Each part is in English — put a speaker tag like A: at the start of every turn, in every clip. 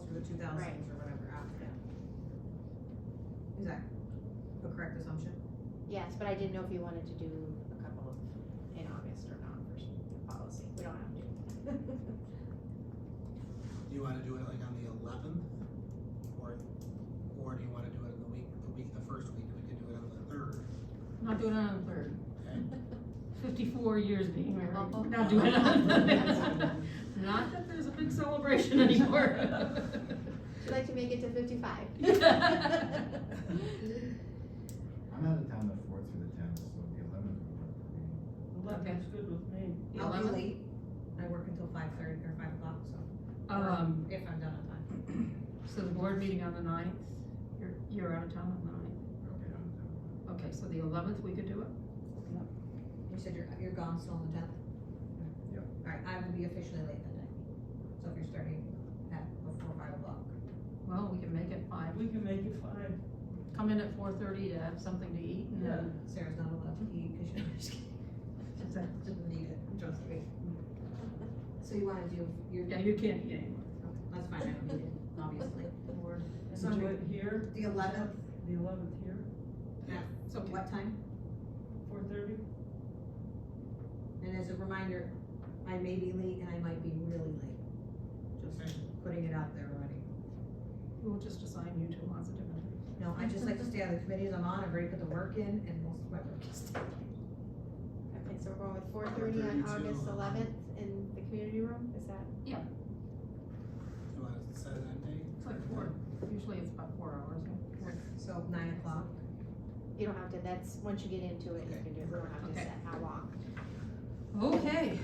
A: thousands or whatever out there. Is that a correct assumption?
B: Yes, but I didn't know if you wanted to do a couple of, in August or not for the policy, we don't have to.
C: Do you wanna do it like on the eleventh? Or, or do you wanna do it in the week, the week, the first week, we could do it on the third?
D: Not doing it on the third.
C: Okay.
D: Fifty-four years being married,
B: Uh-huh.
D: we're not doing it on the third. Not that there's a big celebration anymore.
B: Would you like to make it to fifty-five?
E: I'm out of town the fourth through the tenth, so the eleventh would work for me.
D: Okay.
F: Eleven's good with me.
D: The
A: I'll be
D: 11th?
A: late, I work until five thirty or five o'clock, so,
D: Um,
A: if I'm done on time.
D: so the board meeting on the ninth, you're, you're out of town on the
E: Okay, out of town.
D: ninth. Okay, so the eleventh, we could do it?
A: You said you're, you're gone still on the tenth?
E: Yep.
A: Alright, I will be officially late that night, so if you're starting at before five o'clock.
D: Well, we can make it five.
F: We can make it five.
D: Come in at four thirty to have something to eat and then
A: Sarah's not allowed to eat, cause she just didn't need it, trust me. So you wanna do, your
D: Yeah, you can't eat anymore.
A: Okay, That's fine, I don't need it, obviously.
F: Or
A: So
F: do it here,
A: The eleventh,
F: the eleventh here,
D: It's okay.
A: what time?
F: four thirty.
A: And as a reminder, I may be late and I might be really late,
C: Okay.
A: putting it out there already.
D: We'll just assign you to lots of different.
A: No, I just like to stay on the committees I'm on, I've already put the work in and most of my work is done.
B: Okay, so we're going with four thirty on
C: 4:30 to-
B: August eleventh in the community room, is that?
C: You wanna set an end date?
D: It's like four, usually it's about four hours. yeah.
A: So nine o'clock,
B: You don't have to, that's, once you get into it, you can do it, we don't have to
D: Okay.
B: set how long.
D: Okay,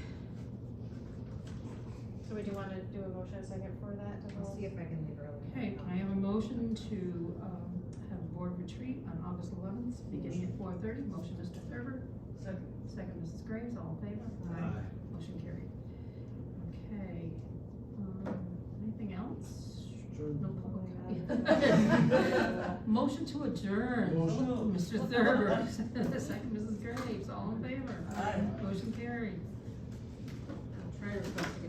B: So would you wanna do a motion a second for that to
A: I'll
B: hold?
A: see if I can leave early.
D: okay, can I have a motion to, um, have a board retreat on August eleventh, beginning at four thirty, motion Mr. Thurber,
F: Second,
D: second Mrs. Graves, all in favor? Motion carried. Okay, um, anything else? No
B: Uh,
D: public. Motion to adjourn.
F: Motion.
D: Mr. Thurber, second Mrs. Graves, all in favor?
F: Aye.
D: Motion carried. Treasurer's report.